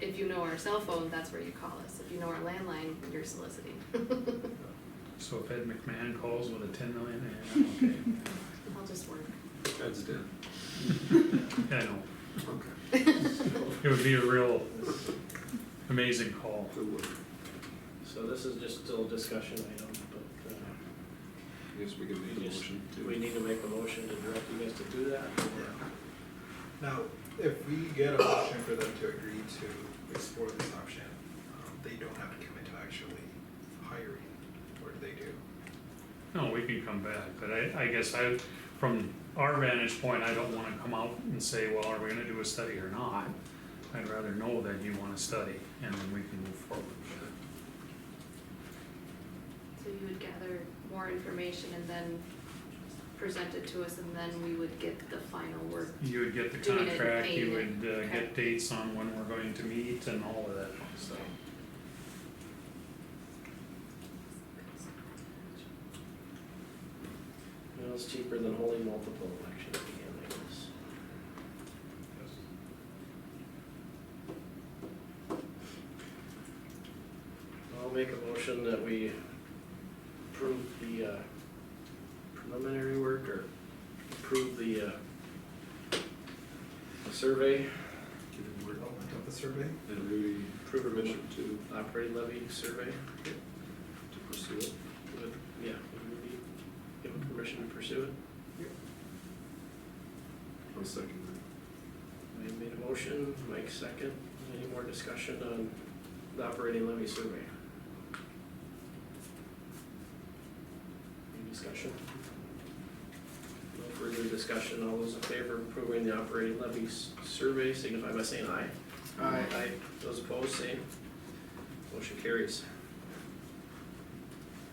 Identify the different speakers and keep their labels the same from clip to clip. Speaker 1: if you know our cell phone, that's where you call us. If you know our landline, you're soliciting.
Speaker 2: So if Ed McMahon calls with a ten million, eh,
Speaker 1: I'll just work.
Speaker 3: That's dead.
Speaker 2: okay, I know,
Speaker 3: Okay.
Speaker 2: it would be a real amazing call.
Speaker 3: Good work.
Speaker 4: So this is just still a discussion item, but, uh,
Speaker 3: I guess we can make a
Speaker 4: We just-
Speaker 3: motion
Speaker 4: do we
Speaker 3: to.
Speaker 4: need to make a motion to direct you guys to do that? or-
Speaker 5: Now, if we get a motion for them to agree to explore this option, um, they don't have to commit to actually hiring, or do they do?
Speaker 2: No, we can come back, but I, I guess I, from our vantage point, I don't wanna come out and say, well, are we gonna do a study or not? I'd rather know that you wanna study, and then we can move forward with it.
Speaker 1: So you would gather more information and then present it to us and then we would get the final word.
Speaker 2: You would get the
Speaker 1: Do we need to
Speaker 2: contract,
Speaker 1: pay it?
Speaker 2: you would uh,
Speaker 1: Okay.
Speaker 2: get dates on when we're going to meet and all of that fun stuff.
Speaker 4: Well, it's cheaper than holding multiple elections again, I guess. I'll make a motion that we approve the uh, preliminary work or approve the uh, the survey,
Speaker 3: Give them work.
Speaker 5: Development of the survey?
Speaker 3: And we
Speaker 4: approve or
Speaker 3: permission
Speaker 4: mission
Speaker 3: to,
Speaker 4: operating levy survey.
Speaker 3: to pursue it.
Speaker 4: Would- Yeah, would we give them permission to pursue it?
Speaker 3: I'll second
Speaker 4: I made a motion, Mike second. Any more discussion on the operating levy survey? Any discussion? No further discussion. All those in favor of approving the operating levy s- survey signify by saying aye.
Speaker 3: Aye.
Speaker 4: Aye. Those opposed, same. Motion carries.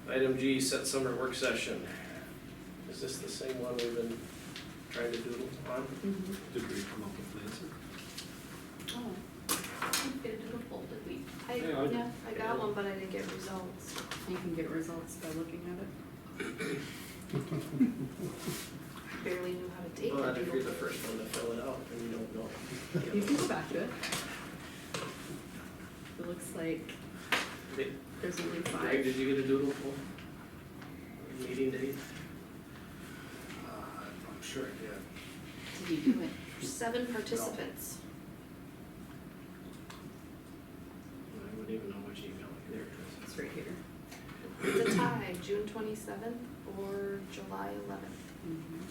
Speaker 4: Item G, set summer work session. Is this the same one we've been trying to doodle on?
Speaker 1: Mm-hmm.
Speaker 3: that. Did we come up with an answer?
Speaker 1: Oh, get it in a folder, we, I,
Speaker 3: Yeah, I-
Speaker 1: yeah, I got one, but I didn't get results.
Speaker 6: You can get results by looking at it.
Speaker 1: Barely knew how to take
Speaker 4: Well, if you're
Speaker 1: it.
Speaker 4: the first one to fill it out, then you don't
Speaker 6: You can
Speaker 4: know.
Speaker 6: go back to it. It looks like
Speaker 4: Did-
Speaker 6: there's only
Speaker 4: Greg,
Speaker 6: five.
Speaker 4: did you get a doodle poll? Meeting date?
Speaker 5: I'm sure, yeah.
Speaker 6: Did you do it?
Speaker 1: Seven participants.
Speaker 4: I wouldn't even know which email either.
Speaker 6: It's right here.
Speaker 1: It's a tie, June twenty-seventh or July eleventh.
Speaker 6: Mhm.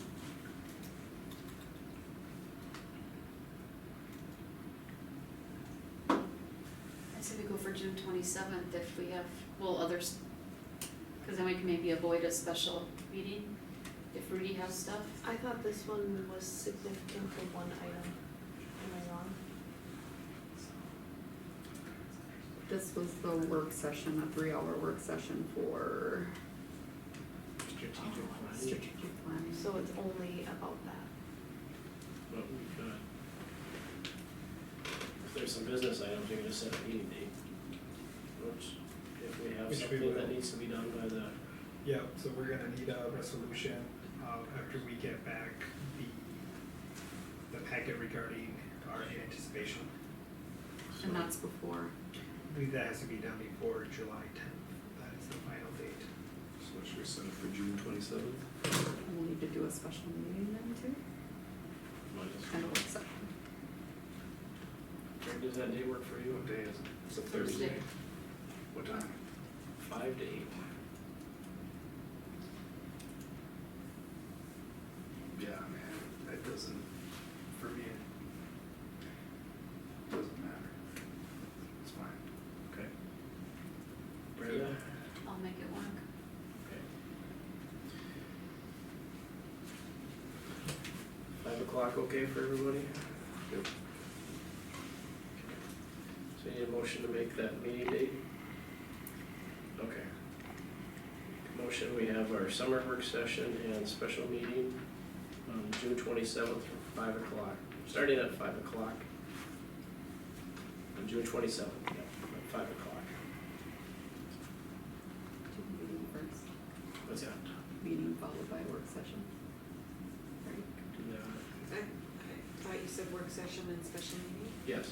Speaker 7: I say we go for June twenty-seventh if we have, well, others, because then we can maybe avoid a special meeting if Rudy has stuff.
Speaker 1: I thought this one was significant for one item. Am I wrong?
Speaker 6: This was the work session, a three-hour work session for
Speaker 4: Strategic planning.
Speaker 6: strategic planning.
Speaker 1: So it's only about that.
Speaker 4: But we've got. If there's some business items, you're gonna set a meeting date. Which, if we have
Speaker 5: Which we
Speaker 4: something that
Speaker 5: will.
Speaker 4: needs to be done by the,
Speaker 5: Yeah, so we're gonna need a resolution, uh, after we get back the, the packet regarding our anticipation.
Speaker 6: And that's before,
Speaker 5: I believe that has to be done before July tenth, that is the final date.
Speaker 3: So should we set it for June twenty-seventh?
Speaker 6: and we'll need to do a special meeting then too, and a work session.
Speaker 4: Greg, does that day work for you?
Speaker 3: day is it? It's a
Speaker 7: Thursday.
Speaker 3: What time?
Speaker 4: Five to eight.
Speaker 3: Yeah, man, that doesn't, for me, it doesn't matter. It's fine. Okay.
Speaker 4: Brenda?
Speaker 7: I'll make it work.
Speaker 4: Five o'clock, okay for everybody?
Speaker 3: Yep.
Speaker 4: So you need a motion to make that meeting date? Okay. Motion, we have our summer work session and special meeting on June twenty-seventh from five o'clock, starting at five o'clock. On June twenty-seventh, yeah, at five o'clock.
Speaker 6: Do the meeting first,
Speaker 4: What's that?
Speaker 6: meeting followed by work session. Right?
Speaker 4: Do that.
Speaker 8: I thought you said work session and special meeting?
Speaker 4: Yes.